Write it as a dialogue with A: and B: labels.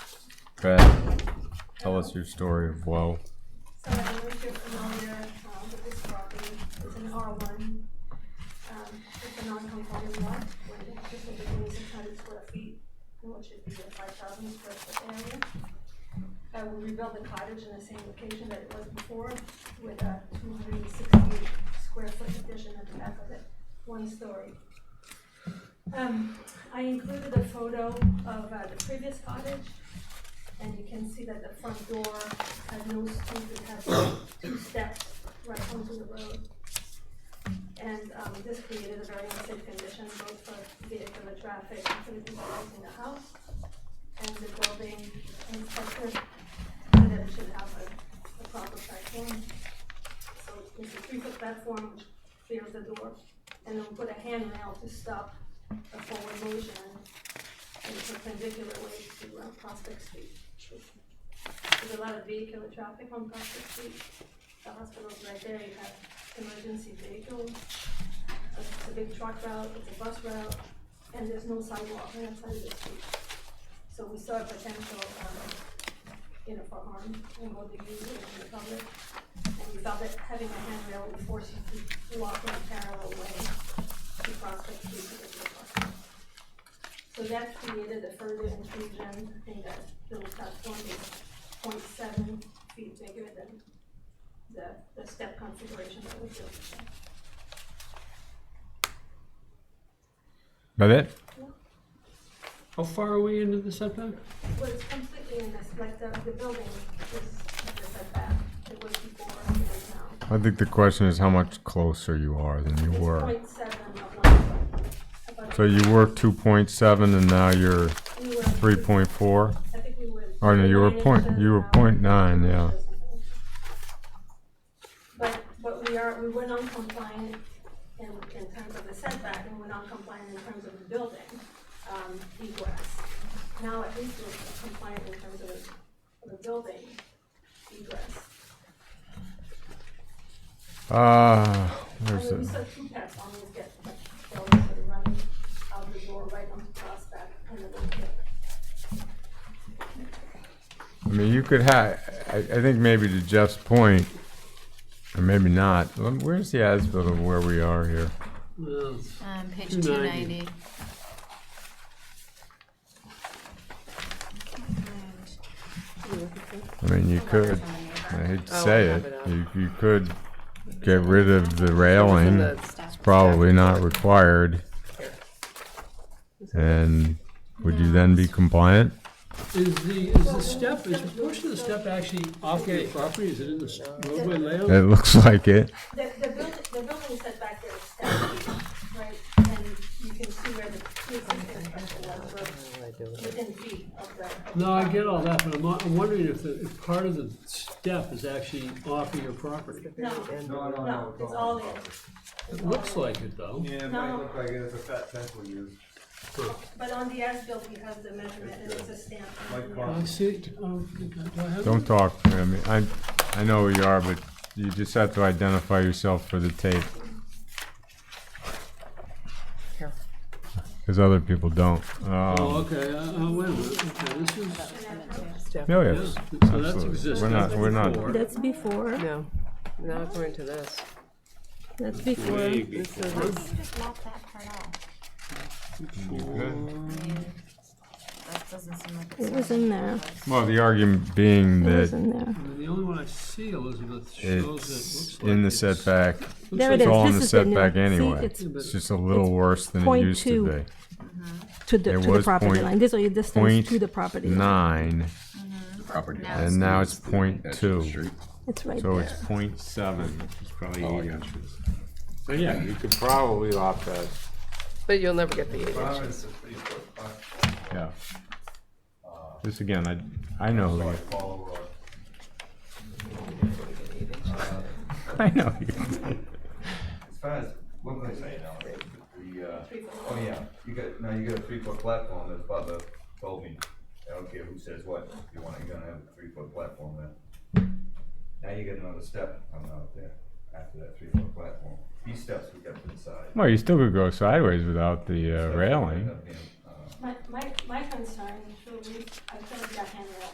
A: Brad, tell us your story of woe.
B: So I don't know if you're familiar uh, with this property, it's an R one. Um, it's a non-conforming lot, with just over twenty-six hundred square feet, which would be a five thousand square foot area. I will rebuild the cottage in the same location that it was before, with a two hundred and sixty square foot addition at the back of it, one story. Um, I included a photo of uh, the previous cottage, and you can see that the front door has no stoop, it has two steps right onto the road. And, um, this created a very unsafe condition both for vehicular traffic and for the people using the house. And the building inspector said that it should have a, a proper platform. So it's a three-foot platform which clears the door, and then we put a handrail to stop the forward motion in a perpendicular way to uh, Prospect Street. There's a lot of vehicular traffic on Prospect Street. The hospital's right there, you have emergency vehicles. It's a big truck route, it's a bus route, and there's no sidewalk on that side of the street. So we saw a potential, um, you know, for harm in both the user and the public. And we felt that having a handrail would force you to walk in a parallel way to Prospect Street to get to the park. So that created a further intrusion, I think that little platform is 0.7 feet bigger than the, the step configuration that we built.
A: That it?
C: How far are we into the setback?
B: Well, it's completely in this, like the, the building is at the setback, it was before, it is now.
A: I think the question is how much closer you are than you
B: It's
A: were.
B: 0.7 of one foot. About-
A: So you were two point seven and now you're
B: we were-
A: three point four?
B: I think we were.
A: Oh, no, you were
B: nine
A: point-
B: inches
A: you were
B: now.
A: point nine, yeah.
B: But, but we are, we were non-compliant in, in terms of the setback, and we're non-compliant in terms of the building, um, egress. Now at least we're compliant in terms of, the- of the building egress.
A: Uh,
B: I
A: where's
B: mean, we
A: it?
B: saw two pets always get, like, dogs that are running out the door right onto Prospect, and then they get
A: I mean, you could have, I, I think maybe to Jeff's point, or maybe not, um, where's the as-built of where we are here?
C: Well,
D: Um, page
C: 290.
D: 290. And-
A: I mean, you could, Oh, I hate to say
E: have
A: it,
E: it up.
A: you, you could get rid of the railing.
D: Stuff.
A: Probably not required. And would you then be compliant?
C: Is the, is the step, is a portion of the step actually off your property? Is it in the s- roadway layout?
A: It looks like it.
B: The, the building, the building setback there is seven feet, right, and you can see where the pre-existing structure was, we're within feet of the.
C: No, I get all that, but I'm, I'm wondering if the, if part of the step is actually off of your property.
F: No, no,
B: No,
F: no.
B: it's all there,
C: It looks like it though.
F: Yeah, it
B: No.
F: might look like it has a fat pencil used.
B: but on the as-built, we have the measurement, and it's a stamp.
F: Like
C: I
F: coffee.
C: see, oh, do I have?
A: Don't talk, I mean, I, I know who you are, but you just have to identify yourself for the tape.
E: Here.
A: Cause other people don't.
C: Oh,
A: Um,
C: okay, uh, uh, wait a minute, okay, this is,
A: oh,
C: yeah,
A: yes,
C: so that's
A: absolutely. We're
C: existing
A: not, we're
C: before.
A: not,
G: That's before,
E: No, not according to this.
G: that's
E: This
G: before.
D: Why
E: is,
D: can't you just lop that part off? I mean, that doesn't seem like it's
G: It was in there.
A: well, the argument being
G: It was
A: that
G: in there.
C: And The only one I see, Elizabeth, shows it
A: it's
C: looks like.
A: in the
C: it's-
A: setback.
C: looks
G: There
C: like
G: it
A: It's
G: is.
A: all in
G: This
A: the
G: is the new-
A: setback
G: see,
A: anyway.
G: it's-
A: It's just a little worse than it
G: point
A: used to
G: two.
A: be.
G: To the,
A: It
G: to the
A: was
G: property
A: point-
G: line. This is the
A: point
G: distance to the property. line.
A: Nine,
H: property.
D: Now
A: and now it's point
H: That's the
A: two.
H: street.
G: It's right
A: So
G: there.
A: it's point seven, which is probably
H: Oh, I
A: eight
H: got
A: inches. So yeah, you could probably opt that.
E: but you'll never get the eight
F: Five
E: inches.
F: is a three foot, five,
A: Yeah. This again, I, I know, who you-
F: follow or.
A: I know you.
F: As far as, what was I saying now? The, uh, oh yeah, you got, now you got a three foot platform, that's Bubba told me. I don't care who says what, you want, you're gonna have a three foot platform there. Now you got another step coming out there after that three foot platform. These steps we got to the side.
A: Well, you still could go sideways without the uh,
F: Steps
A: railing.
F: end up being, uh,
B: My, my, my concern, truly, I put up that handrail,